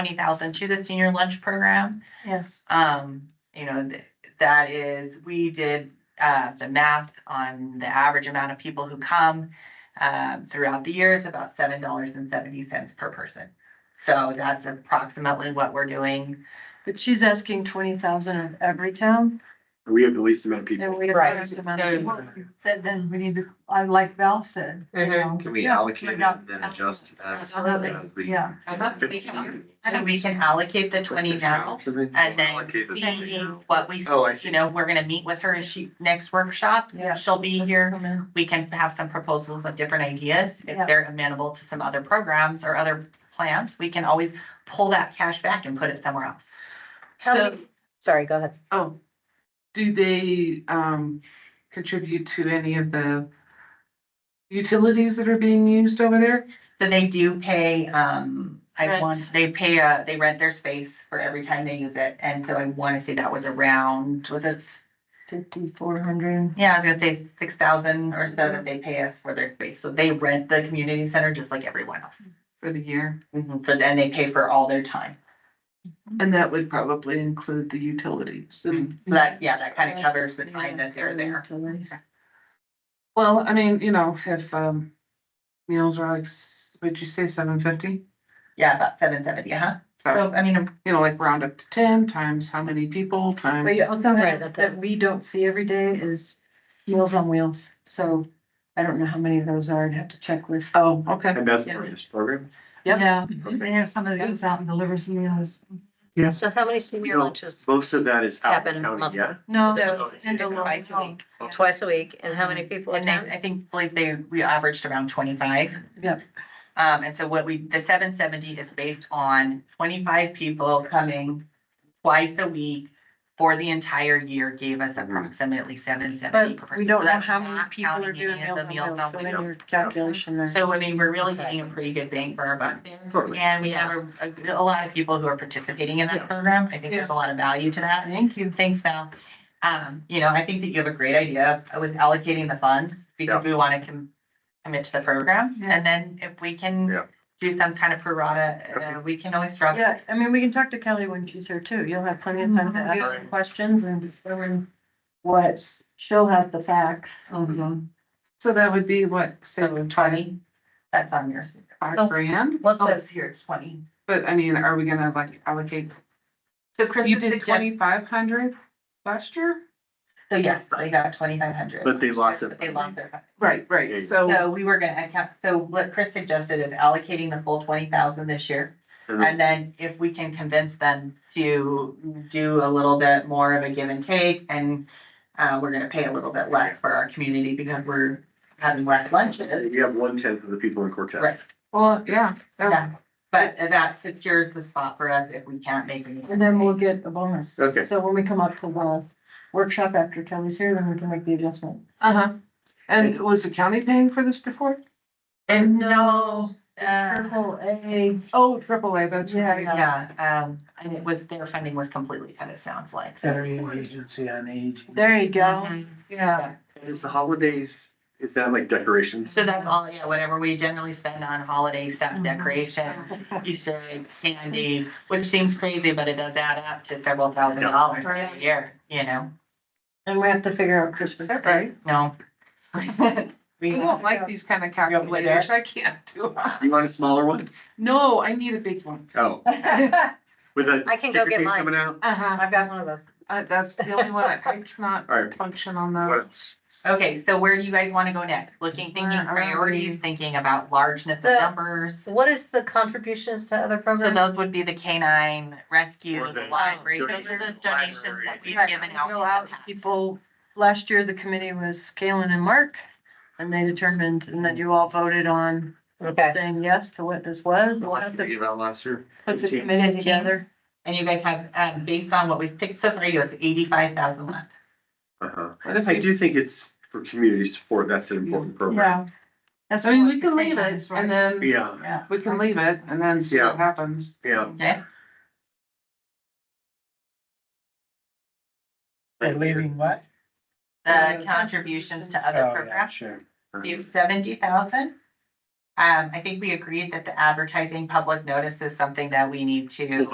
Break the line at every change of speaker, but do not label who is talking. twenty thousand to the senior lunch program.
Yes.
Um, you know, th- that is, we did uh the math on the average amount of people who come. Um, throughout the year, it's about seven dollars and seventy cents per person. So that's approximately what we're doing.
But she's asking twenty thousand of every town
We have the least amount of
and
people.
we have the
Right.
most amount of people.
Then, then we need to, I like Val said. you
Mm-hmm.
know,
Can we
yeah,
allocate it and then adjust to that?
Absolutely.
Uh, we-
Yeah.
So we can allocate the twenty now and then
Allocate the
see
20.
what we,
Oh, I
you
see.
know, we're gonna meet with her as she, next workshop.
Yeah.
She'll be here.
Come in.
We can have some proposals of different ideas.
Yeah.
If they're amenable to some other programs or other plans, we can always pull that cash back and put it somewhere else.
How
So,
many- Sorry, go ahead.
Oh, do they um contribute to any of the utilities that are being used over there?
so they do pay, um, I
Rent.
want, they pay, uh, they rent their space for every time they use it. And so I want to say that was around, was it,
Fifty-four hundred.
yeah, I was gonna say six thousand or so that they pay us for their space. So they rent the community center just like everyone else.
For the year,
Mm-hmm.
Mhm, So then they pay for all their time.
and that would probably include the utilities
Mm-hmm.
and.
So that, Mm-hmm. yeah, that kind of covers the time that they're there.
Well, I mean, you know, if um meals were like, s- would you say seven fifty?
Yeah, about seven seventy, huh?
So,
So, I mean,
you know, like round up to ten times how many people
But
times,
yeah, the
Right,
one
that-
that we don't see every day is Meals on Wheels, so I don't know how many of those are, I'd have to check with.
oh, okay.
And that's part of this program.
Yep.
Yeah, they have somebody that goes out and delivers meals.
Yes.
So how many
You
senior
know,
lunches?
most of that is out of
Happen
county,
monthly.
yeah.
No.
those
in the long
twice a
haul.
week.
Twice a week, and how many people
And they,
attend?
I think, believe they, we averaged around twenty-five.
Yep.
Um, and so what we, the seven seventy is based on twenty-five people coming twice a week for the entire year gave us
Mhm.
approximately seven seventy.
But we don't know how many people are doing Meals on Wheels, so in your calculation there.
So I mean, we're really
Okay.
getting a pretty good bang for our buck there.
Totally.
And we have a, a a lot of people who are participating in that program. I think there's a lot of value to that.
Thank you.
Thanks, Val. Um, you know, I think that you have a great idea with allocating the funds because we want to com- commit to the program. And then if we
Yeah.
can do some kind of prorata, uh, we can always drop.
Yeah, I mean, we can talk to Kelly when she's here too. You'll have plenty of time to ask her
Mhm.
questions and determine what, she'll have the facts.
Mhm.
So that would be what, say,
So twenty, that's on yours.
five grand?
What's that's here, it's twenty.
But I mean, are we gonna like allocate
So Chris,
You did
twenty,
twenty-five hundred last year?
so yes, they got twenty-five hundred.
But they lost it.
But they lost their.
Right,
Yeah.
right, so,
So we were gonna account, so what Chris suggested is allocating the full twenty thousand this year.
Mhm.
And then if we can convince them to do a little bit more of a give and take and uh, we're gonna pay a little bit less for our community because we're having less lunches.
We have one tenth of the people in
Right.
Cortez.
well, yeah.
Yeah. But that secures the spot for us if we can't make any.
And then we'll get a bonus.
Okay.
So when we come up to the workshop after Kelly's here, then we can make the adjustment.
Uh-huh. And was the county paying for this before?
And no,
Triple A,
Oh, triple A, that's
Yeah,
right.
yeah, um, and it was, their funding was completely cut, it sounds like. so.
Federal Agency on Aging.
there you go.
Mhm.
Yeah,
And is the holidays, is that like decorations?
So that's all, yeah, whatever we generally spend on holiday stuff, decorations, Easter eggs, candy, which seems crazy, but it does add up to several thousand
Yeah.
dollars a year, you know,
And we have to figure out
is
Christmas.
that right?
no.
I
We
don't like these kind of
want me to do
calculators, I can't do it.
You want a smaller one?
No, I need a big one.
Oh, with a.
I can go
ticker
get
tape
mine.
Coming out?
Uh-huh,
I've got one of those.
Uh, that's the only one I, I cannot
All right.
function on
Um,
What
those.
else?
Okay, so where do you guys want to go next? Looking, thinking
Where are we?
priorities, thinking about largeness of
The-
numbers.
What is the contributions to other
So
programs?
those would be the canine rescue,
Or
the
the-
library, those are the
Donation.
donations that we've
Right,
given
we
out. in
go
the
out,
past.
People, last year, the committee was Kalen and Mark, and they determined, and then you all voted on
Okay,
saying yes to what this was. We'll
What
have
did
to
we give out last year?
put the
Fifteen.
committee
Fifteen.
together.
And you guys have, um, based on what we've picked so far, you have eighty-five thousand left.
Uh-huh. I do think it's for community support, that's an important
Yeah.
program.
That's
I mean, we can leave
That's
it
right.
and then,
Yeah,
Yeah.
we can leave it and then see what happens.
yeah.
Okay?
They're leaving what?
the contributions to
Oh,
other
yeah,
programs.
Uh-huh. Mm-hmm.
Sure.
You have seventy thousand Um, I think we agreed that the advertising public notice is something that we need to